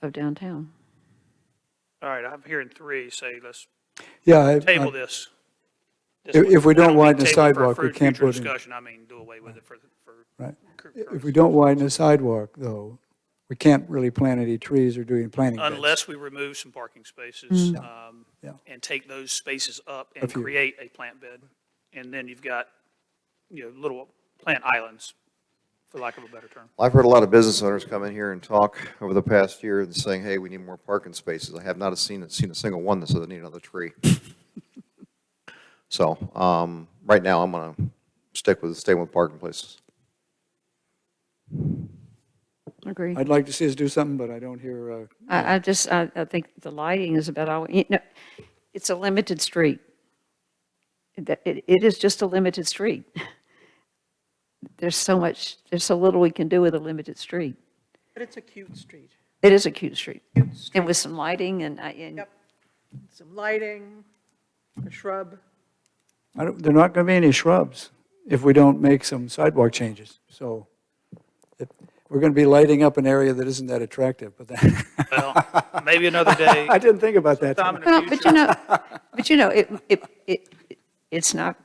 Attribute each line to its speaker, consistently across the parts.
Speaker 1: of downtown.
Speaker 2: All right, I'm hearing three say let's
Speaker 3: Yeah, I-
Speaker 2: table
Speaker 3: I-
Speaker 2: this. This
Speaker 3: Uh, If-
Speaker 2: one.
Speaker 3: if
Speaker 2: I
Speaker 3: we don't
Speaker 2: mean
Speaker 3: widen the
Speaker 2: table for
Speaker 3: sidewalk, we
Speaker 2: fru-
Speaker 3: can't
Speaker 2: future
Speaker 3: put in-
Speaker 2: Discussion, I mean, do away with it for, the- for.
Speaker 3: right.
Speaker 2: cur-
Speaker 3: If
Speaker 2: current-
Speaker 3: we don't widen the sidewalk, though, we can't really plant any trees or do any planting beds.
Speaker 2: Unless we remove some parking spaces, um,
Speaker 3: Mm. Yeah.
Speaker 2: and take those spaces up and
Speaker 3: few.
Speaker 2: create a plant bed. And then you've got, you know, little plant islands, for lack of a better term.
Speaker 4: I've heard a lot of business owners come in here and talk over the past year and saying, hey, we need more parking spaces. I have not seen, seen a single one that said they need another tree. So, um, right now, I'm gonna stick with, stay with parking places.
Speaker 1: Agree.
Speaker 3: I'd like to see us do something, but I don't hear, uh,
Speaker 1: I, I just, I, I think the lighting is about all, you know, it's a limited street. That, it, it is just a limited street. There's so much, there's so little we can do with a limited street.
Speaker 5: But it's a cute street.
Speaker 1: It is a cute street.
Speaker 5: Cute
Speaker 1: And
Speaker 5: street,
Speaker 1: with some lighting and, I- and
Speaker 5: Yep. some lighting, a shrub.
Speaker 3: I don't, there are not going to be any shrubs if we don't make some sidewalk changes. So if- we're going to be lighting up an area that isn't that attractive, but that,
Speaker 2: Well, maybe another day,
Speaker 3: I didn't think about that.
Speaker 2: sometime in
Speaker 1: Well,
Speaker 2: the
Speaker 1: but you
Speaker 2: future.
Speaker 1: know, but you know, it, it, it, it's not,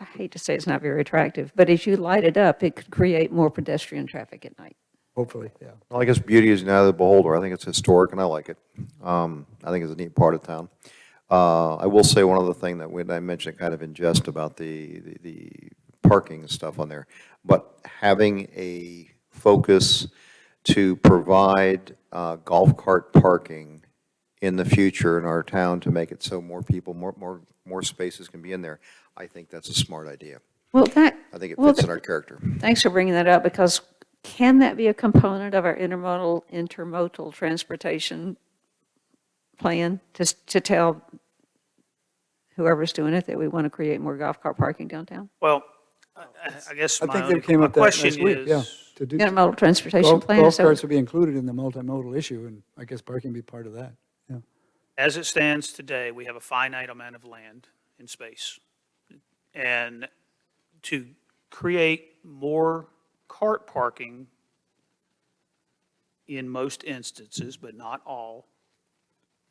Speaker 1: I hate to say it's not very attractive, but as you light it up, it could create more pedestrian traffic at night.
Speaker 3: Hopefully, yeah.
Speaker 4: Well, I guess beauty is now the beholder. I think it's historic and I like it. Um, I think it's a neat part of town. Uh, I will say one other thing that when I mentioned kind of in jest about the, the- the parking and stuff on there, but having a focus to provide uh, golf cart parking in the future in our town to make it so more people, more, more, more spaces can be in there, I think that's a smart idea.
Speaker 1: Well, that.
Speaker 4: I think it
Speaker 1: well,
Speaker 4: fits in our character.
Speaker 1: Thanks for bringing that up, because can that be a component of our intermodal, intermodal transportation plan? Just to tell whoever's doing it that we want to create more golf cart parking downtown?
Speaker 2: Well, I- I I guess
Speaker 3: I
Speaker 2: my
Speaker 3: think they
Speaker 2: only,
Speaker 3: came
Speaker 2: my
Speaker 3: up that last
Speaker 2: question
Speaker 3: week, yeah.
Speaker 2: is,
Speaker 3: to do-
Speaker 1: Intermodal transportation
Speaker 3: Golf
Speaker 1: plan?
Speaker 3: golf
Speaker 1: is that-
Speaker 3: carts will be included in the multimodal issue, and I guess parking be part of that, yeah.
Speaker 2: As it stands today, we have a finite amount of land and space. And to create more cart parking in most instances, but not all,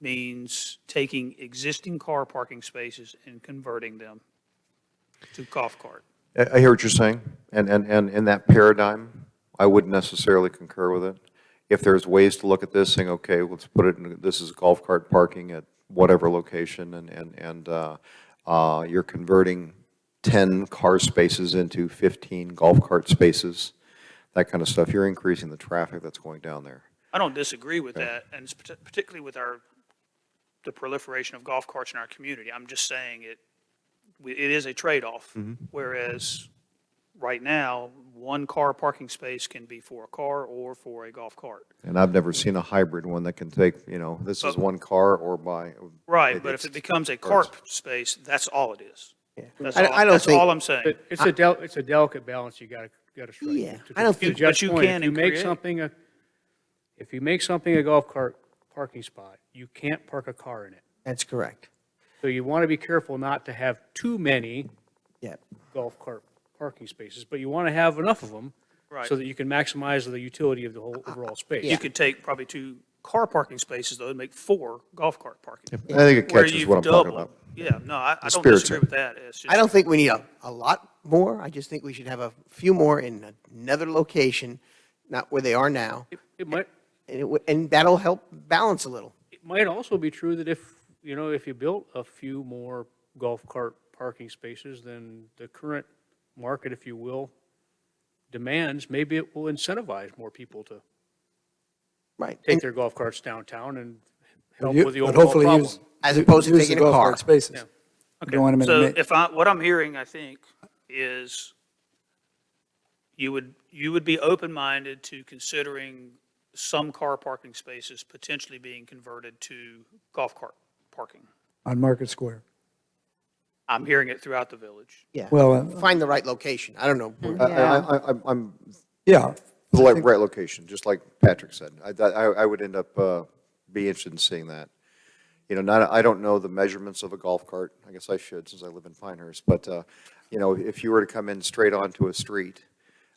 Speaker 2: means taking existing car parking spaces and converting them to golf cart.
Speaker 4: I I hear what you're saying, and, and, and in that paradigm, I wouldn't necessarily concur with it. If there's ways to look at this, saying, okay, let's put it, in this is golf cart parking at whatever location, and, and, and uh, uh, you're converting 10 car spaces into 15 golf cart spaces, that kind of stuff, you're increasing the traffic that's going down there.
Speaker 2: I don't disagree with that, and it's parti- particularly with our, the proliferation of golf carts in our community. I'm just saying it, we- it is a trade-off. Whereas, right now, one car parking space can be for a car or for a golf cart.
Speaker 4: And I've never seen a hybrid one that can take, you know, this is one car or by.
Speaker 2: Right, but if it becomes a cart space, that's all it is. That's all,
Speaker 6: I- I don't
Speaker 2: that's
Speaker 6: think-
Speaker 2: all I'm saying.
Speaker 7: But it's a del, it's a delicate balance you gotta, gotta strike.
Speaker 6: Yeah,
Speaker 7: To-
Speaker 6: I don't
Speaker 7: to
Speaker 6: think-
Speaker 7: Jeff's
Speaker 2: But you
Speaker 7: point,
Speaker 2: can
Speaker 7: If you make
Speaker 2: create-
Speaker 7: something, a- if you make something a golf cart parking spot, you can't park a car in it.
Speaker 6: That's correct.
Speaker 7: So you want to be careful not to have too many
Speaker 6: Yeah.
Speaker 7: golf cart parking spaces, but you want to have enough of them
Speaker 2: Right.
Speaker 7: so that you can maximize the utility of the whole
Speaker 6: Uh,
Speaker 7: overall space.
Speaker 2: You could take probably two car parking spaces, though, and make four golf cart parking.
Speaker 4: I think it
Speaker 2: Where
Speaker 4: catches
Speaker 2: you've
Speaker 4: what I'm talking
Speaker 2: doubled-
Speaker 4: about.
Speaker 2: Yeah, no, I, I don't
Speaker 4: spirit's
Speaker 2: disagree
Speaker 4: in
Speaker 2: with that. It's just-
Speaker 6: I don't think we need a, a lot more. I just think we should have a few more in another location, not where they are now.
Speaker 7: It might,
Speaker 6: And, it, would- and that'll help balance a little.
Speaker 7: it might also be true that if, you know, if you built a few more golf cart parking spaces than the current market, if you will, demands, maybe it will incentivize more people to
Speaker 6: Right.
Speaker 7: take their golf carts downtown and help
Speaker 3: You-
Speaker 7: with the
Speaker 3: but
Speaker 7: overall
Speaker 3: hopefully
Speaker 7: problem.
Speaker 3: use-
Speaker 6: As opposed to
Speaker 3: use the
Speaker 6: taking a
Speaker 3: golf
Speaker 6: car.
Speaker 3: cart Spaces. You don't want 'em in the
Speaker 2: So
Speaker 3: ma-
Speaker 2: if I, what I'm hearing, I think, is you would, you would be open-minded to considering some car parking spaces potentially being converted to golf cart parking.
Speaker 3: on Market Square.
Speaker 2: I'm hearing it throughout the village.
Speaker 6: Yeah.
Speaker 3: Well, uh,
Speaker 6: Find the right location. I don't know. where-
Speaker 4: I- I, I, I'm- I'm
Speaker 3: yeah,
Speaker 4: The li- right location, just like Patrick said. I, I, I would end up, uh, be interested in seeing that. You know, not, I don't know the measurements of a golf cart. I guess I should since I live in Pinehurst. But, uh, you know, if you were to come in straight onto a street,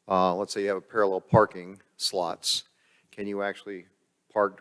Speaker 4: uh, let's say you have a parallel parking slots, can you actually park